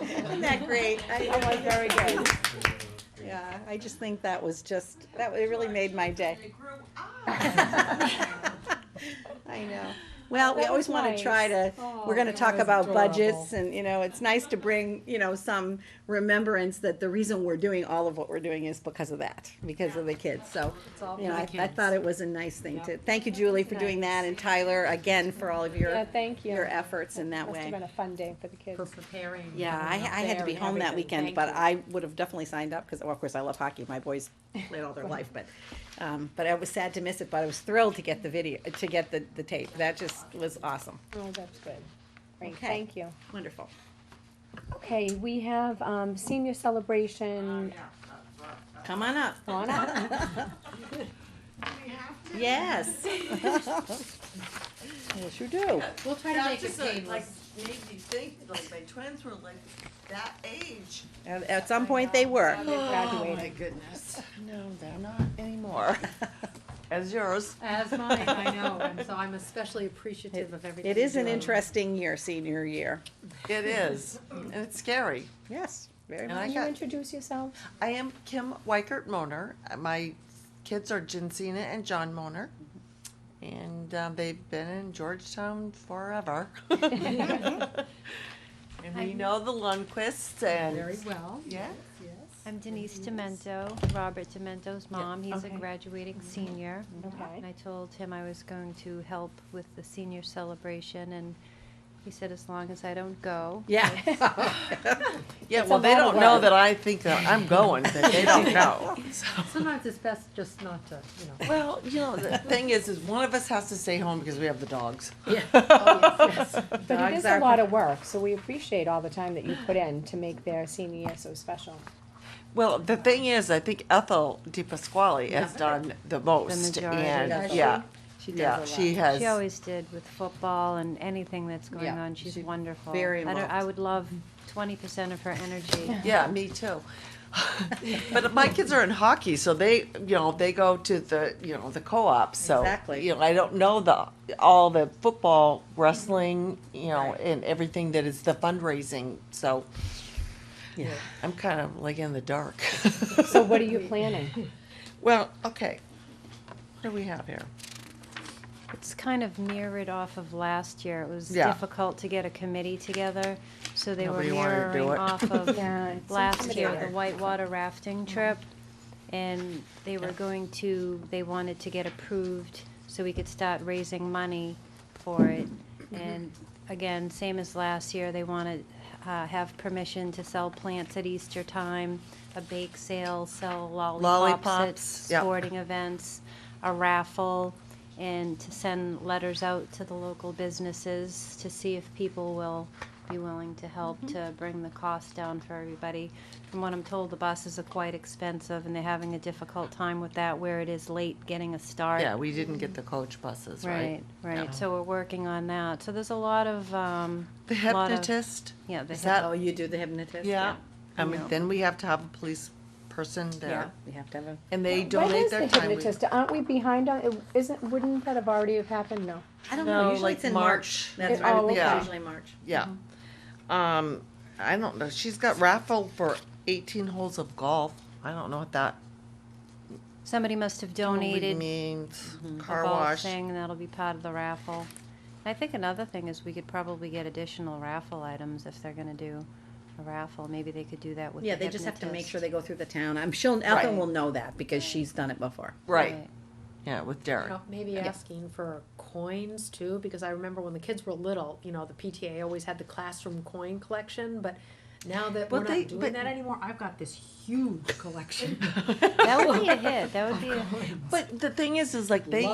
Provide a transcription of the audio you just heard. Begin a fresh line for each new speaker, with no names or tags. Isn't that great? I, that was very good. Yeah, I just think that was just, that, it really made my day. I know. Well, we
That
always
was
wanna try to,
nice.
we're
Oh,
gonna
that
talk
was
about budgets
adorable.
and, you know, it's nice to bring, you know, some remembrance that the reason we're doing all of what we're doing is because of that, because of the kids, so.
all
You know,
for
I,
the
I
kids.
thought it was a nice thing to, thank you Julie for doing that and Tyler again for all of
Yeah,
your,
Uh, thank you.
your efforts in that
Must have
way.
been a fun day for the kids.
For preparing.
Yeah, I, I had to be home that weekend, but I would have definitely signed up, because, well, of course, I love hockey, my boys played all their life, but, um, but I was sad to miss it, but I was thrilled to get the video, to get the, the tape, that just was awesome,
Oh, that's good. Great,
Okay.
thank you.
wonderful.
Okay, we have, um, senior celebration
Come on up.
on up.
Yes. Yes, you do.
We'll try
Yeah, I'm just like, like, made me think, like, my twins were like that age.
At, at some point, they were.
graduated.
Oh, my goodness.
No, they're not anymore.
As yours.
As mine, I know, and so I'm especially appreciative of everything.
It is an
you do.
interesting year, senior year.
It is, and it's scary.
Yes, very
And
much.
I
Can you
got,
introduce yourselves?
I am Kim Weikert Moner. My kids are Jensina and John Moner. And um, they've been in Georgetown forever. And we know the Lundquists
Very
and,
well.
yeah,
Yes.
I'm Denise Demento, Robert Demento's mom. He's a
okay. Mm-hmm.
graduating senior.
Okay.
And I told him I was going to help with the senior celebration, and he said, as long as I don't go.
Yeah.
yeah,
It's a
well, they
lot of
don't know
work.
that I think that I'm going, but they don't know.
Sometimes it's best just not to, you know.
Well, you know, the thing is, is one of us has to stay home because we have the dogs.
But it
Dogs
is
are-
a lot of work, so we appreciate all the time that you put in to make their senior year so special.
Well, the thing is, I think Ethel Di Pasquale has done the most,
majority.
and
Does
yeah,
She does
yeah,
a
she
lot.
has.
She always did with football and anything that's going
Yeah,
on. She's
she's
wonderful.
very
I don't- I
involved.
would love 20% of her energy.
Yeah, me too. but my kids are in hockey, so they, you know, they go to the, you know, the co-op. So
Exactly.
you know, I don't know the all the football, wrestling, you know, and everything that is the fundraising. So yeah, I'm kind of like in the dark.
So what are you planning?
well, okay, what do we have here?
It's kind of mirrored off of last year. It was
Yeah.
difficult to get a committee together, so they were
Nobody wanted to do
mirroring
it.
off of
Yeah, it's
last year, the
intimidating.
whitewater rafting trip. And they were going to, they wanted to get approved so we could start raising money for it. And again, same as last year, they want to have permission to sell plants at Easter time, a bake sale, sell
Lollipops,
lollipops
yeah.
at sporting events, a raffle, and to send letters out to the local businesses to see if people will be willing to help to bring the cost down for everybody. From what I'm told, the buses are quite expensive, and they're having a difficult time with that where it is late getting a start.
Yeah, we didn't get the coach buses, right?
Right, right. So we're working on that. So there's a lot of, um,
The
lot of-
hypnotist.
Yeah, the
Is that-
Oh, you do the hypnotist?
Yeah. I mean,
Yeah.
then we have to have a police person
Yeah,
there,
you have to have a,
and they
When
donate
is
their
the
time. We-
hypnotist? Aren't we behind on, it- isn't, wouldn't that have already have happened? No.
I don't
No,
know, usually
like
it's in
March.
March. That's
It-
right, I
oh,
think it's
okay.
usually March.
Yeah.
Mm-hmm.
Um, I don't know. She's got raffle for eighteen holes of golf. I don't know what that
somebody must have
totally
donated Mm-hmm.
means.
a
Car
golf
wash.
thing, that'll be part of the raffle. I think another thing is we could probably get additional raffle items if they're gonna do a raffle, maybe they could do that with the
Yeah,
hypnotist.
they just have to make sure they go through the town. I'm sure Ethel
Right.
will know that because she's done it before.
Right. Yeah, with Derek.
know, maybe asking for coins too, because I remember when the kids were little, you know, the PTA always had the classroom coin collection, but now that we're
But they-
not
but-
doing that anymore, I've got this huge collection.
That would be a hit, that would be a hit.
But the thing is, is like they